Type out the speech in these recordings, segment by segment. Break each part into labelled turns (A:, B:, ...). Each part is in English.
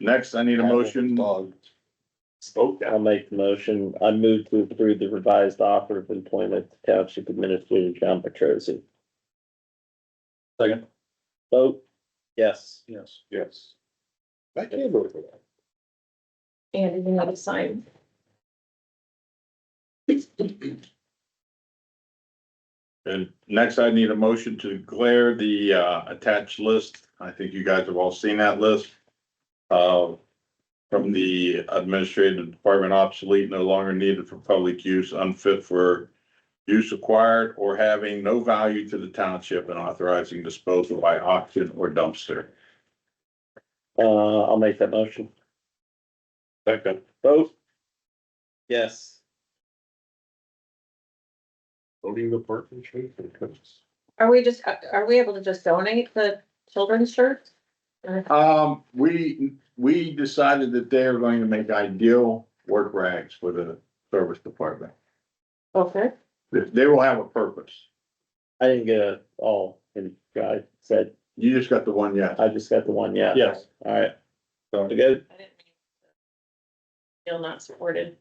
A: Next, I need a motion.
B: Spoke
C: I'll make the motion. I move to approve the revised offer of employment to Township Administrator John Petrosi.
B: Second.
C: Vote, yes.
B: Yes. Yes. I can't vote for that.
D: And you need to sign.
A: And next, I need a motion to declare the uh attached list. I think you guys have all seen that list. Uh, from the administrative department obsolete, no longer needed for public use, unfit for. Use acquired or having no value to the township and authorizing disposal by auction or dumpster.
C: Uh, I'll make that motion.
B: Second.
C: Vote. Yes.
B: Voting the parking space.
D: Are we just, uh, are we able to just donate the children's shirts?
A: Um, we, we decided that they are going to make ideal work rags for the service department.
D: Okay.
A: They will have a purpose.
C: I didn't get it all in, I said,
A: You just got the one yet.
C: I just got the one, yeah.
B: Yes.
C: All right,
A: So-
C: we good?
D: I didn't mean- Feel not supported.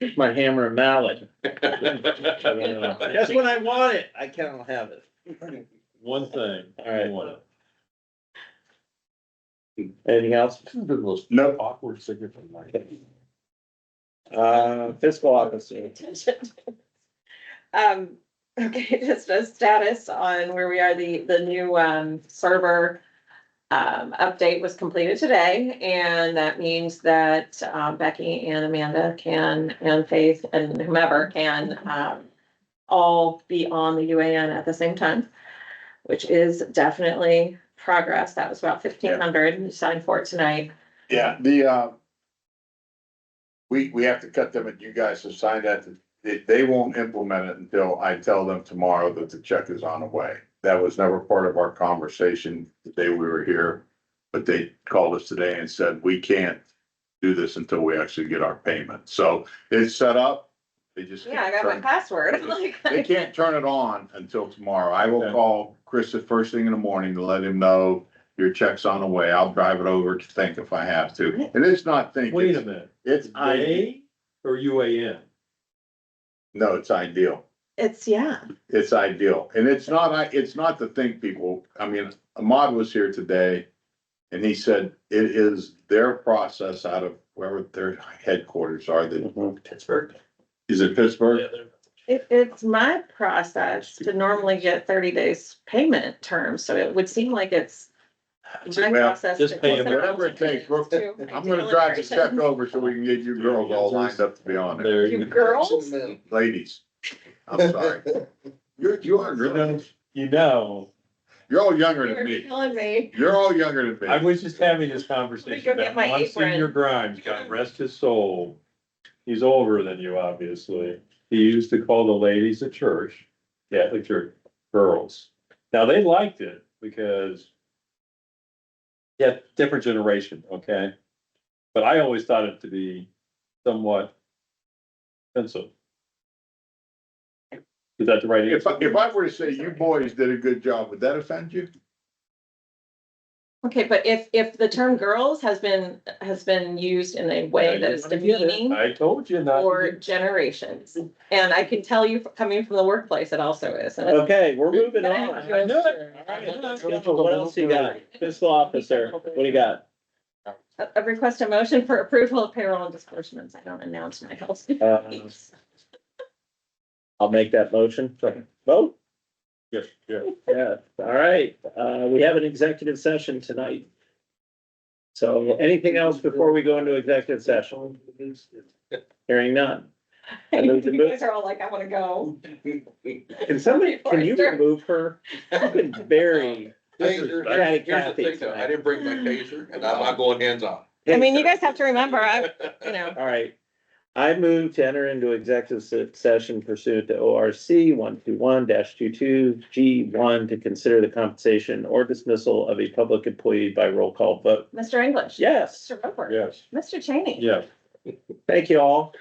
C: Here's My hammer and mallet. That's
B: Yes,
C: when I want it. I cannot have it.
B: one thing.
C: All right.
B: One.
C: Anything else?
B: This has been the most
A: Nope.
B: awkward signature of my life.
C: Uh, fiscal officer.
D: Um, okay, just a status on where we are, the, the new, um, server. Um, update was completed today, and that means that, um, Becky and Amanda can, and Faith and whomever can, um. All be on the UAN at the same time, which is definitely progress. That was about fifteen hundred, you signed for it tonight.
A: Yeah, the, uh, we, we have to cut them, and you guys have signed that, they, they won't implement it until I tell them tomorrow that the check is on the way. That was never part of our conversation the day we were here, but they called us today and said, we can't do this until we actually get our payment. So it's set up, they just.
D: Yeah, I
A: can't
D: got my
A: turn-
D: password, like.
A: They can't turn it on until tomorrow. I will
B: Okay.
A: call Chris the first thing in the morning to let him know your check's on the way. I'll drive it over to think if I have to. And it's not think.
B: Wait a minute,
A: It's I,
B: A or UAN?
A: no, it's ideal.
D: It's, yeah.
A: It's ideal. And it's not, I, it's not the think people. I mean, Ahmad was here today. And he said it is their process out of wherever their headquarters are. That,
C: Mhm.
B: Pittsburgh.
A: is it Pittsburgh?
D: It, it's my process to normally get thirty days payment terms, so it would seem like it's my
A: Well,
D: process.
B: just
D: to
B: pay
D: get
B: them.
A: Whatever it takes, we're-
D: to
A: I'm gonna drive the check over so we can get you girls all lined up to be on it.
B: There
D: You
B: you go.
D: girls,
A: Ladies, I'm sorry. You're, you are, really-
B: You know,
A: you're all younger than
D: you're
A: me.
D: killing me.
A: You're all younger than
B: I
A: me.
B: was just having this
D: Let me go
B: conversation
D: get
B: that
D: my apron.
B: Monsignor Grimes, God rest his soul. He's older than you, obviously. He used to call the ladies at church, Catholic church, girls. Now, they liked it because yeah, different generation, okay? But I always thought it to be somewhat offensive. Is that the right
A: If, I-
B: answer?
A: if I were to say you boys did a good job, would that offend you?
D: Okay, but if, if the term girls has been, has been used in a way that is demeaning
B: I told you not. to
D: for
B: do-
D: generations, and I can tell you, coming from the workplace, it also is. and it's-
C: Okay, we're moving on.
D: Thank you,
C: All
D: sir.
C: right, let's go. What else you got? Fiscal officer, what do you got?
D: I I request a motion for approval of payroll and disbursements. I don't announce my health.
C: Uh, I'll make that motion.
B: Second.
C: Vote?
B: Yes, yes.
C: Yeah, all right. Uh, we have an executive session tonight. So anything else before we go into executive session? Hearing none. I
D: You
C: moved to move-
D: guys are all like, I wanna go.
C: Can somebody, can you remove her? I've been very.
E: Taser,
C: Patty
E: here's here's the
C: Cathy
E: thing though, I
C: tonight.
E: didn't bring my taser and I'm not going hands on.
D: I mean, you guys have to remember, I, you know,
C: All right. I move to enter into executive se- session pursuant to O R C one two one 22 G one to consider the compensation or dismissal of a public employee by roll call vote.
D: Mr. English.
C: Yes,
D: Mr. Roper.
B: Yes,
D: Mr. Cheney.
B: yes.
C: thank you all.